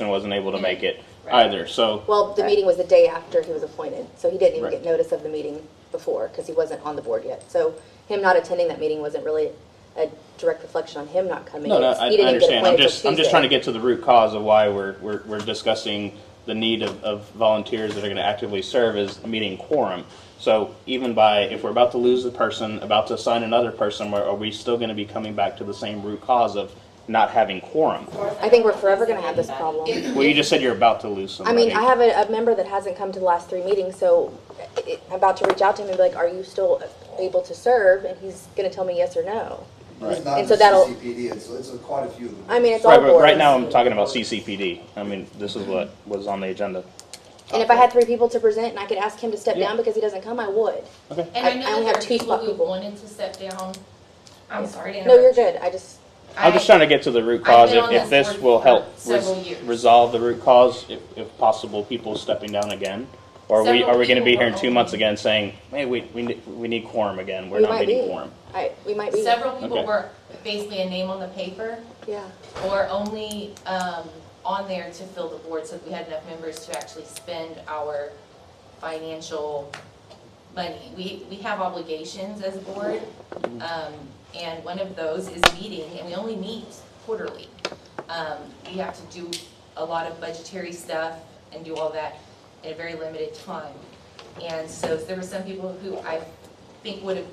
and wasn't able to make it Right. either, so. Well, the meeting was the day after he was appointed, so he didn't even Right. get notice of the meeting before, because he wasn't on the board yet. So him not attending that meeting wasn't really a direct reflection on him not coming. No, no, It's- I, he I didn't get understand. I'm appointed till just, I'm just Tuesday. trying to get to the root cause of why we're, we're, we're discussing the need of, of volunteers that are gonna actively serve as meeting quorum. So even by, if we're about to lose the person, about to assign another person, are, are we still gonna be coming back to the same root cause of not having quorum? I think we're forever gonna have this problem. Well, you just said you're about to lose I somebody. mean, I have a, a member that hasn't come to the last three meetings, so I- I'm about to reach out to him and be like, are you still able to serve? And he's gonna tell me yes or no. It's not And so just that'll- CCPD, it's, it's quite a few of them. I mean, it's all Right, but boards. right now I'm talking about CCPD. I mean, this is what was on the agenda. And if I had three people to present and I could ask him to step Yeah. down because he doesn't come, I would. And I- I I know only that have two there are people spot who people. wanted to step down. I'm sorry to No, you're interrupt. good. I just, I'm just I- trying to get to the root cause, I've been if, on if this this board will for help several res- years. resolve the root cause, if, if possible, people stepping down again? Or are we, Several are we gonna be people here in were two months on. again saying, hey, we, we, ne- we need quorum again, we're we not might meeting be. quorum? I, we might be. Several people Okay. were basically a name on the paper Yeah. or only um, on there to fill the board so that we had enough members to actually spend our financial money. We, we have obligations as a board, um, and one of those is meeting, and we only meet quarterly. Um, We have to do a lot of budgetary stuff and do all that in a very limited time. And so there were some people who I think would have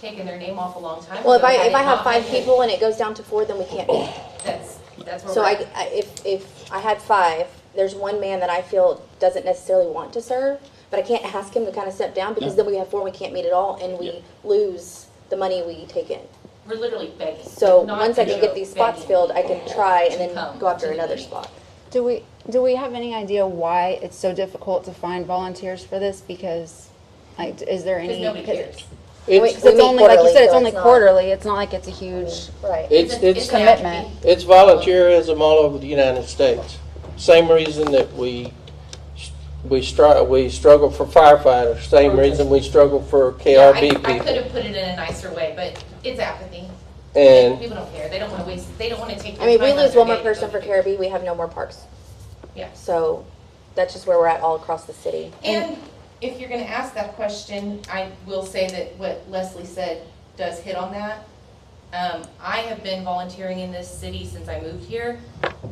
taken their name off a long time ago. Well, if I, had if it I have not five been- people and it goes down to four, then we can't meet. That's, that's where So we're at. I, I- if, if I had five, there's one man that I feel doesn't necessarily want to serve, but I can't ask him to kind of step down because then we have four, and we can't meet at all and Yeah. we lose the money we take in. We're literally begging. So Not once I can get begging. these spots filled, I can try and To then come go after to the another meeting. spot. Do we, do we have any idea why it's so difficult to find volunteers for this? Because, like, is there any? Because nobody cares. Wait, It's, 'cause we it's meet only, like you quarterly, said, it's so only it's not- Mm. quarterly, it's not like it's a huge, Right. It's, it's, an commitment. attribute. it's volunteerism all over the United States. Same reason that we, we str we struggle for firefighters, same reason we struggle for Yeah, KRB I, I could people. have put it in a nicer way, but it's apathy. And, People don't care. They don't want to waste, they don't want to take. I mean, if we their time lose out one of more their day to person go for do Caribbean, we have no more parks. it. Yeah. So that's just where we're at all across the city. And if you're going to ask that question, I will say that what Leslie said does hit on that. Um, I have been volunteering in this city since I moved here,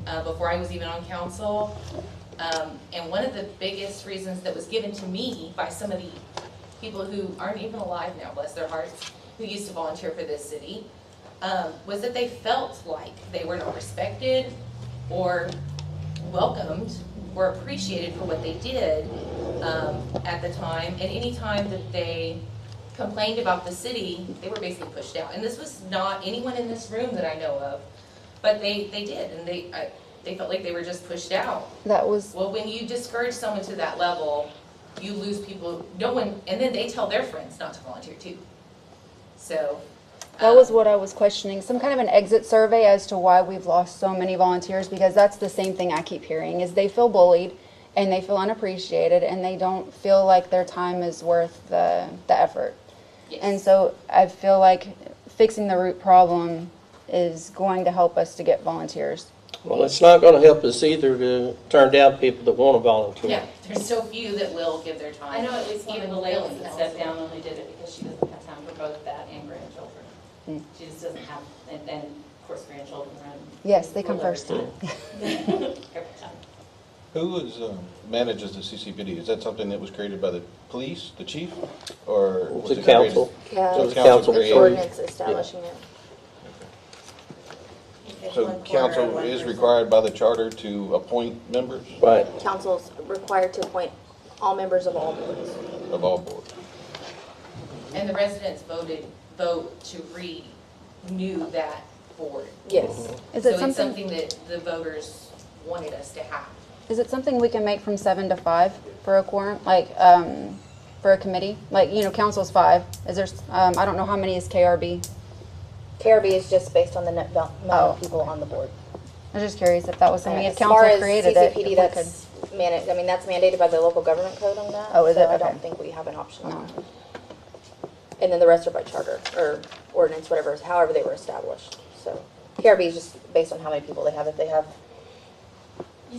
uh, before I was even on council. Um, and one of the biggest reasons that was given to me by some of the people who aren't even alive now, bless their hearts, who used to volunteer for this city, um, was that they felt like they were not respected or welcomed or appreciated for what they did um, at the time. And any time that they complained about the city, they were basically pushed out. And this was not anyone in this room that I know of, but they, they did, and they, I, they felt like they were just pushed out. that was, Well, when you discourage someone to that level, you lose people, no one, and then they tell their friends not to volunteer too. So. that um, was what I was questioning, some kind of an exit survey as to why we've lost so many volunteers, because that's the same thing I keep hearing, is they feel bullied and they feel unappreciated and they don't feel like their time is worth the, the effort. yes. And so I feel like fixing the root problem is going to help us to get volunteers. well, it's not gonna help us either to turn down people that wanna volunteer. Yeah, there's so few that will give their time. I know at least one of Even the the ladies willing that ones. stepped down only did it because she doesn't have time for both that and grandchildren. Mm. She just doesn't have, and then, of course, grandchildren run. Yes, they come full every first. time. Every time. Who is, um, manages the CCPD? Is that something that was created by the police, the chief, or? was The it created- council, Yeah, So the council there's created- ordinance establishing it. So council is required by the charter to appoint members right. Council's required to appoint all members of all boards. of all boards? And the residents voted, vote to renew that board. Yes. Is So it it's something, something that the voters wanted us to have. is it something we can make from seven to five for a quorum, like, um, for a committee? Like, you know, council's five, is there, s- um, I don't know how many is KRB? Caribbean is just based on the net val- amount of people on the board. Oh. I was just curious if that was something, if As far council as created it. if CCPD, we that's managed, I mean, that's mandated by the local government code on that. Oh, is it? So I Okay. Oh. don't think we have an option on that. And then the rest are by charter or ordinance, whatever, however they were established, so. Caribbean is just based on how many people they have. If they have